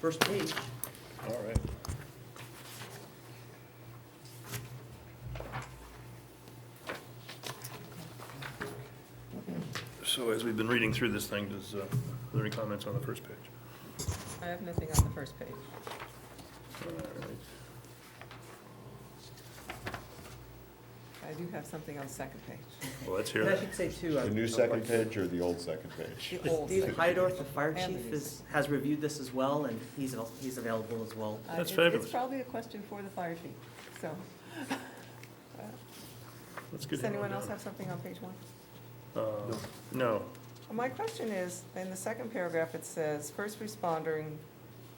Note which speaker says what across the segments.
Speaker 1: first page.
Speaker 2: All right. So as we've been reading through this thing, does, uh, are there any comments on the first page?
Speaker 3: I have nothing on the first page.
Speaker 2: All right.
Speaker 3: I do have something on the second page.
Speaker 2: Well, let's hear
Speaker 1: And I
Speaker 2: it.
Speaker 1: should say too. uh,
Speaker 4: The
Speaker 1: I-
Speaker 4: new second page or the old second page?
Speaker 3: The old
Speaker 1: Steve
Speaker 3: second
Speaker 1: Hydorf, the fire
Speaker 3: And the
Speaker 1: chief,
Speaker 3: new
Speaker 1: is, has reviewed this as well, and he's, al- he's available as well.
Speaker 3: Uh,
Speaker 2: That's
Speaker 3: it's-
Speaker 2: fabulous.
Speaker 3: It's probably a question for the fire chief, so. uh,
Speaker 2: Let's get
Speaker 3: Does
Speaker 2: him on
Speaker 3: anyone else
Speaker 2: down.
Speaker 3: have something on page one?
Speaker 2: Uh, No.
Speaker 3: My question is, in the second paragraph, it says, first responding,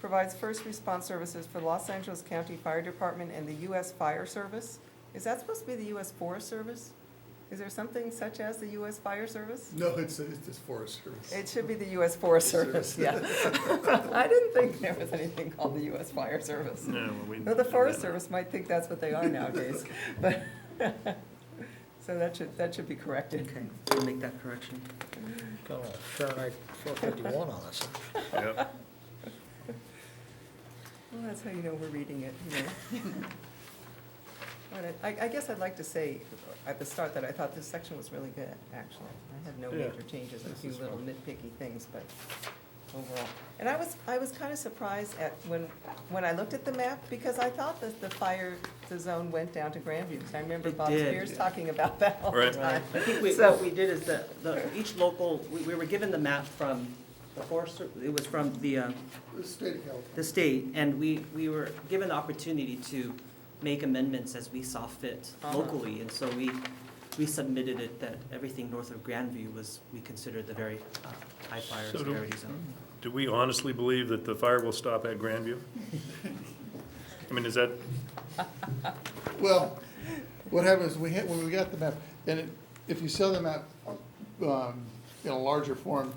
Speaker 3: provides first response services for Los Angeles County Fire Department and the U.S. Fire Service. Is that supposed to be the U.S. Forest Service? Is there something such as the U.S. Fire Service?
Speaker 5: No, it's, it's just Forest Service.
Speaker 3: It should be the U.S. Forest Service, yeah. I didn't think there was anything called the U.S. Fire Service.
Speaker 2: No, well, we.
Speaker 3: Though Oh, the Forest Service might think that's what they are nowadays, but, so that should, that should be corrected.
Speaker 1: Okay, we'll make that correction.
Speaker 6: Got a Fahrenheit 451 on us.
Speaker 2: Yep.
Speaker 3: Well, that's how you know we're reading it, you know. But I, I guess I'd like to say at the start that I thought this section was really good, actually. I had no
Speaker 2: Yeah.
Speaker 3: major changes, a few little nitpicky things, but overall. And I was, I was kind of surprised at, when, when I looked at the map, because I thought that the fire, the zone went down to Grandview. 'cause I remember
Speaker 1: It
Speaker 3: Bob
Speaker 1: did.
Speaker 3: Spears talking about that all the
Speaker 2: Right.
Speaker 3: time.
Speaker 1: I think we,
Speaker 3: So-
Speaker 1: what we did is that, the, each local, we, we were given the map from the Forest, Ser- it was from the, uh,
Speaker 5: The state of California.
Speaker 1: the state, and we, we were given the opportunity to make amendments as we saw fit
Speaker 3: Uh-huh.
Speaker 1: locally, and so we, we submitted it that everything north of Grandview was, we considered the very uh, high fire
Speaker 2: So do-
Speaker 1: severity zone.
Speaker 2: Do we honestly believe that the fire will stop at Grandview? I mean, is that,
Speaker 5: Well, what happens, we hit, when we got the map, and it- if you saw the map, um, in a larger form,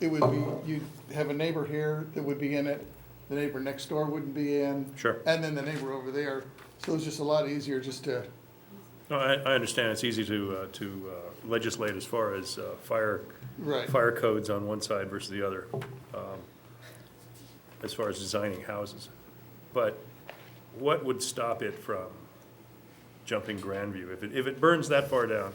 Speaker 5: it would be, you'd have a neighbor here that would be in it, the neighbor next door wouldn't be in.
Speaker 2: Sure.
Speaker 5: And then the neighbor over there, so it's just a lot easier just to,
Speaker 2: no, I, I understand, it's easy to, uh, to uh, legislate as far as uh, fire
Speaker 5: right.
Speaker 2: fire codes on one side versus the other, um, as far as designing houses. But what would stop it from jumping Grandview? If it, if it burns that far down,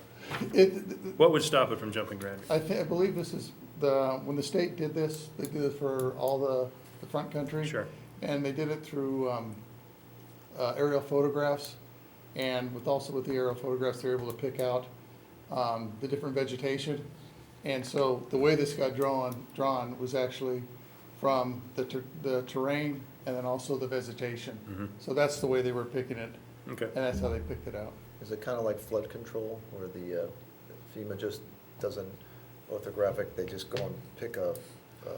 Speaker 5: It,
Speaker 2: what would stop it from jumping Grandview?
Speaker 5: I think, I believe this is the, when the state did this, they did it for all the, the front country.
Speaker 2: Sure.
Speaker 5: And they did it through, um, uh, aerial photographs. And with, also with the aerial photographs, they're able to pick out, um, the different vegetation. And so the way this got drawn, drawn was actually from the ter- the terrain and then also the vegetation. So that's the way they were picking it,
Speaker 2: Okay,
Speaker 5: and that's how they picked it out.
Speaker 6: Is it kind of like flood control where the uh, FEMA just doesn't orthographic, they just go and pick a, uh,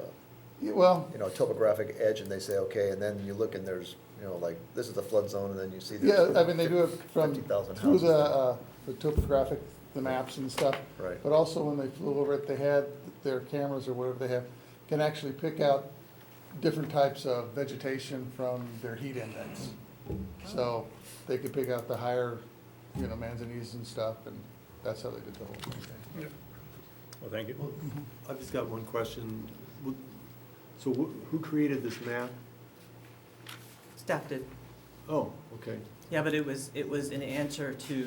Speaker 5: Yeah, Well,
Speaker 6: you know, topographic edge and they say, okay, and then you look and there's, you know, like, this is the flood zone and then you see.
Speaker 5: Yeah,
Speaker 6: there's
Speaker 5: I mean, they do it from,
Speaker 6: 50,000
Speaker 5: through the,
Speaker 6: houses.
Speaker 5: uh, the topographic, the maps and stuff.
Speaker 6: Right.
Speaker 5: But also when they flew over it, they had their cameras or whatever they have, can actually pick out different types of vegetation from their heat index. So they could pick out the higher, you know, manzanese and stuff, and that's how they did the whole thing.
Speaker 2: well, thank you.
Speaker 7: Well, I've just got one question. Would- So wh- who created this map?
Speaker 1: Staff did.
Speaker 7: Oh, okay.
Speaker 1: Yeah, but it was, it was an answer to,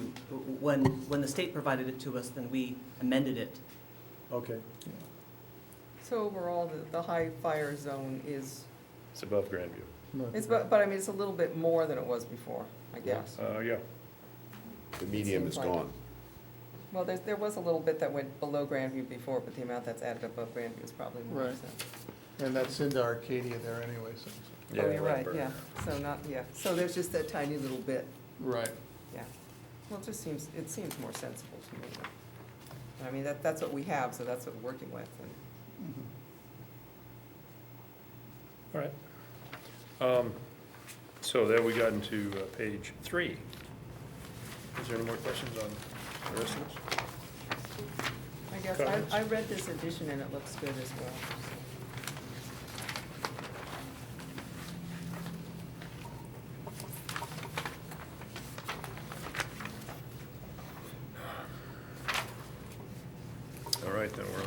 Speaker 1: when, when the state provided it to us, then we amended it.
Speaker 7: Okay.
Speaker 3: So overall, the, the high fire zone is,
Speaker 2: It's above Grandview.
Speaker 3: it's, but, but I mean, it's a little bit more than it was before, I guess.
Speaker 2: Uh, yeah,
Speaker 4: The medium is
Speaker 3: Seems like
Speaker 4: gone.
Speaker 3: Well, there, there was a little bit that went below Grandview before, but the amount that's added above Grandview is probably more,
Speaker 5: Right.
Speaker 3: so.
Speaker 5: And that's into Arcadia there anyway, so. so-
Speaker 2: Yeah,
Speaker 3: Oh, you're right,
Speaker 2: Lindbergh.
Speaker 3: yeah, so not, yeah, so there's just that tiny little bit,
Speaker 5: Right.
Speaker 3: yeah. Well, it just seems, it seems more sensible to me. I mean, that, that's what we have, so that's what we're working with, and
Speaker 2: all right. Um, So there we got into uh, page three. Is there any more questions on the rest of this?
Speaker 3: I guess,
Speaker 2: Comments?
Speaker 3: I, I read this edition and it looks good as well. so.
Speaker 2: All right, then, we're on